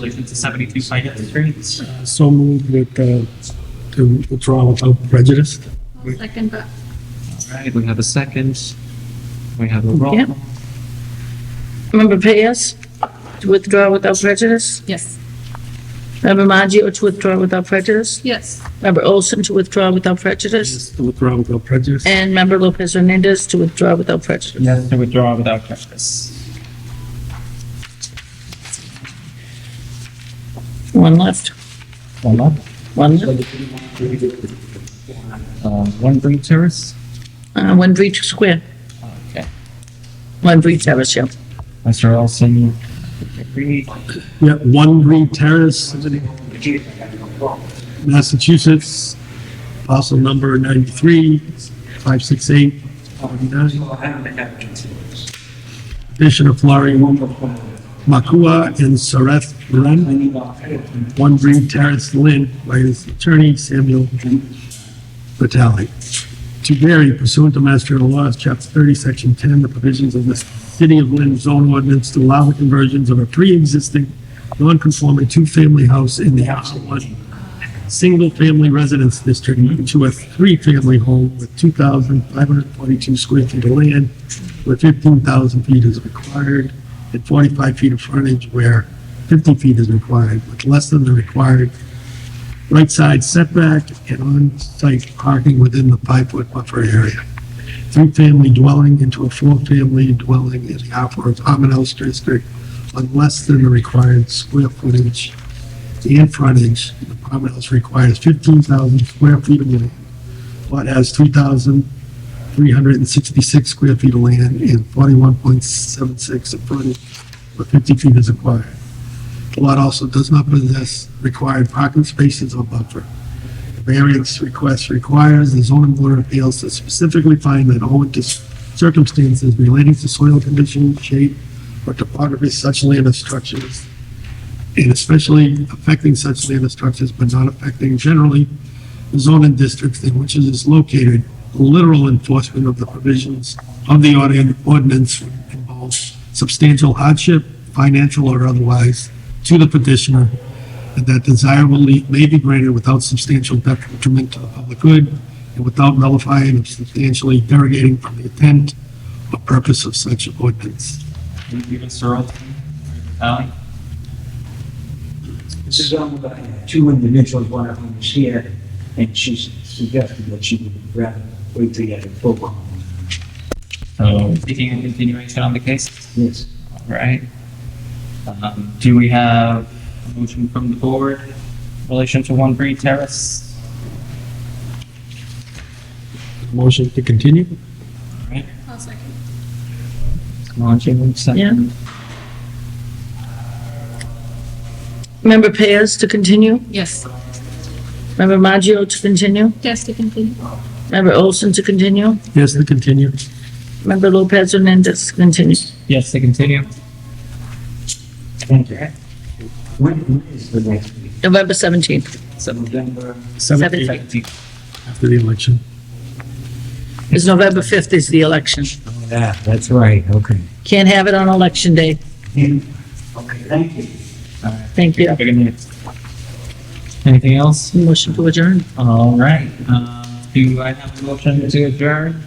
Relation to seventy-two Pine Street. So moved with, uh, to withdraw without prejudice. Second, but All right, we have a second. We have a roll. Yeah. Member Payas, to withdraw without prejudice. yes, Member Maggio, to withdraw without prejudice. yes, Member Olson, to withdraw without prejudice. To withdraw without prejudice. And Member Lopez Hernandez, to withdraw without prejudice. Yes, to withdraw without prejudice. One left, One up. one left. Uh, one green terrace. Uh, One Breach Square, Okay. One Breach Terrace, yeah. Mr. Olson. Agreed. Yeah, One Green Terrace, Massachusetts, parcel number 93, 568, 49. Petition of Flori Makua and Sareth Ren, One Green Terrace, Lynn, by his attorney Samuel Vitale. To vary pursuant to Mass General Laws, Chapter 30, Section 10, the provisions of the City of Lynn zone ordinance to allow the conversions of a pre-existing non-conforming two-family house in the R1 single-family residence district into a three-family home with 2,542 square feet of land where 15,000 feet is required and 45 feet of frontage where 50 feet is required, with less than the required right side setback and on-site parking within the five-foot buffer area. Three-family dwelling into a four-family dwelling in the R4 Common House District on less than the required square footage and frontage. The Common House requires 15,000 square feet of land, but has 3,366 square feet of land and 41.76 of frontage, but 50 feet is required. The lot also does not possess required parking spaces or buffer. The Variance request requires the zoning board of appeals to specifically find that all the circumstances relating to soil condition, shape, or topography of such land or structures, and especially affecting such land or structures but not affecting generally the zoning districts in which it is located, literal enforcement of the provisions of the ordin- ordinance would involve substantial hardship, financial or otherwise, to the petitioner, and that desirable relief may be granted without substantial detriment to the public good and without nullifying or substantially derogating from the intent or purpose of such ordinance. Thank you, Mr. Olson. Aye. This is owned by two individuals, one of whom is here, and she suggested that she would rather wait till you had a full call. So seeking a Um, continuation on the case. Yes. All right. Um, do we have a motion from the board in relation to one green terrace? Motion to continue? All right. I'll second. Launching second. Member Payas, to continue. Yes, Member Maggio, to continue. yes, to continue. Member Olson, to continue. Yes, to continue. Member Lopez Hernandez, to continue. Yes, to continue. Thank you. When, when is the next meeting? November 17th. November? Seventeen. After the election. It's November 5th is the election. Yeah, that's right, okay. Can't have it on election day. Okay, thank you. Thank you. Very good. Anything else? Motion to adjourn. All right. Uh, do I have a motion to adjourn?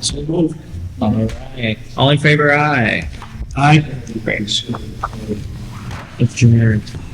So moved. All right. All in favor, aye. Aye. Great. Adjourned.